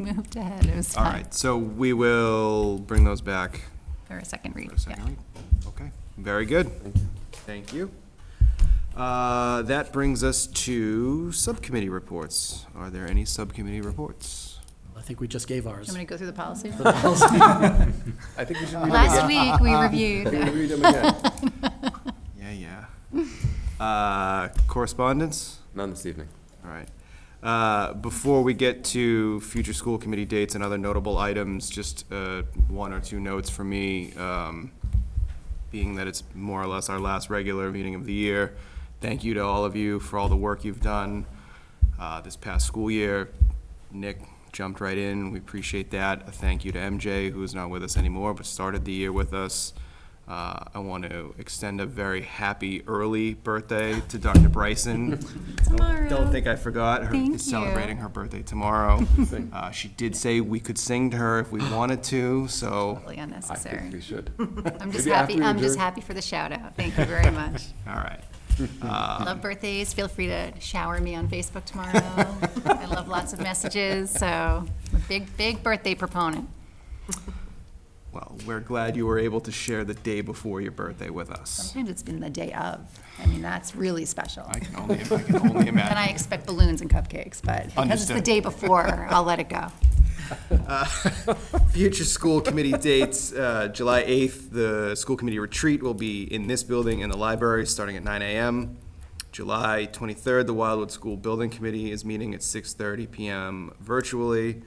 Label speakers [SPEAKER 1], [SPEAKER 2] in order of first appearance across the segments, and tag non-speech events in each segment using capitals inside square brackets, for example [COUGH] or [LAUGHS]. [SPEAKER 1] moved ahead. It was
[SPEAKER 2] All
[SPEAKER 1] time
[SPEAKER 2] right, so we will bring those back
[SPEAKER 1] for a second read.
[SPEAKER 2] for a
[SPEAKER 1] yeah.
[SPEAKER 2] second read. Okay, very good. Thank you. Uh, That brings us to subcommittee reports. Are there any subcommittee reports?
[SPEAKER 3] I think we just gave ours.
[SPEAKER 1] I'm going to go through the policy.
[SPEAKER 4] [LAUGHS] I think we should read
[SPEAKER 1] Last
[SPEAKER 4] them
[SPEAKER 1] week, we
[SPEAKER 4] again.
[SPEAKER 1] reviewed.
[SPEAKER 4] [LAUGHS] We read them again.
[SPEAKER 2] Yeah, yeah. Uh, Correspondence?
[SPEAKER 4] None this evening.
[SPEAKER 2] All right. Uh, Before we get to future school committee dates and other notable items, just uh, one or two notes for me. um, Being that it's more or less our last regular meeting of the year, thank you to all of you for all the work you've done uh, this past school year. Nick jumped right in. We appreciate that. A thank you to MJ, who's not with us anymore, but started the year with us. Uh, I want to extend a very happy early birthday to Dr. Bryson.
[SPEAKER 1] [LAUGHS] Tomorrow.
[SPEAKER 2] Don't think I forgot. Her
[SPEAKER 1] Thank
[SPEAKER 2] is celebrating
[SPEAKER 1] you.
[SPEAKER 2] her birthday
[SPEAKER 1] [LAUGHS]
[SPEAKER 2] tomorrow. uh, she did say we could sing to her if we wanted to, so
[SPEAKER 1] Totally
[SPEAKER 4] I think we
[SPEAKER 1] unnecessary.
[SPEAKER 4] should.
[SPEAKER 1] I'm just
[SPEAKER 4] Maybe after
[SPEAKER 1] happy,
[SPEAKER 4] we
[SPEAKER 1] I'm just
[SPEAKER 4] adjourn.
[SPEAKER 1] happy for the shout out. Thank you very
[SPEAKER 4] [LAUGHS]
[SPEAKER 1] much.
[SPEAKER 2] all right.
[SPEAKER 4] Um,
[SPEAKER 1] Love birthdays. Feel free to shower me on Facebook
[SPEAKER 4] [LAUGHS]
[SPEAKER 1] tomorrow. I love lots of messages, so I'm a big, big birthday proponent.
[SPEAKER 2] Well, we're glad you were able to share the day before your birthday with us.
[SPEAKER 1] Sometimes it's been the day of. I mean, that's really special.
[SPEAKER 2] I can only, I can
[SPEAKER 1] [LAUGHS] And
[SPEAKER 2] only
[SPEAKER 1] I
[SPEAKER 2] imagine.
[SPEAKER 1] expect balloons and cupcakes, but because it's the
[SPEAKER 2] Understood.
[SPEAKER 1] day before, I'll let it go.
[SPEAKER 2] Future school committee dates, uh, July 8th, the school committee retreat will be in this building in the library, starting at 9 a.m. July 23rd, the Wildwood School Building Committee is meeting at 6:30 p.m. virtually.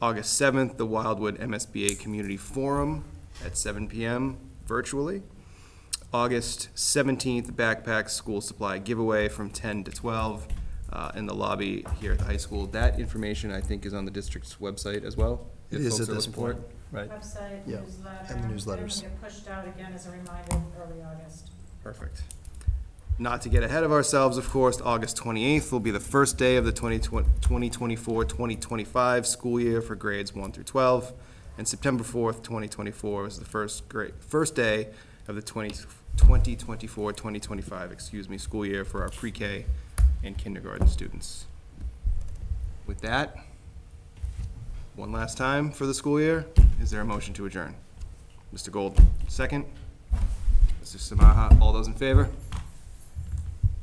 [SPEAKER 2] August 7th, the Wildwood MSBA Community Forum at 7 p.m. virtually. August 17th, backpack school supply giveaway from 10 to 12 uh, in the lobby here at the high school. That information, I think, is on the district's website as well.
[SPEAKER 5] It
[SPEAKER 2] if
[SPEAKER 5] is
[SPEAKER 2] folks
[SPEAKER 5] at
[SPEAKER 2] are
[SPEAKER 5] this
[SPEAKER 2] looking for it.
[SPEAKER 5] point, right?
[SPEAKER 6] Website,
[SPEAKER 5] Yeah,
[SPEAKER 6] newsletter.
[SPEAKER 5] and the
[SPEAKER 6] They're gonna
[SPEAKER 5] newsletters.
[SPEAKER 6] get pushed out again as a reminder early August.
[SPEAKER 2] Perfect. Not to get ahead of ourselves, of course, August 28th will be the first day of the 2024-2025 school year for grades 1 through 12, and September 4th, 2024 is the first grade, first day of the 20 2024-2025, excuse me, school year for our pre-K and kindergarten students. With that, one last time for the school year, is there a motion to adjourn? Mr. Gold, second? Mr. Samaha, all those in favor?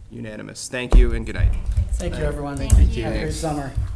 [SPEAKER 2] Unanimous. Thank you and good night.
[SPEAKER 3] Thank you, everyone.
[SPEAKER 1] Thank you.
[SPEAKER 3] Have a great summer.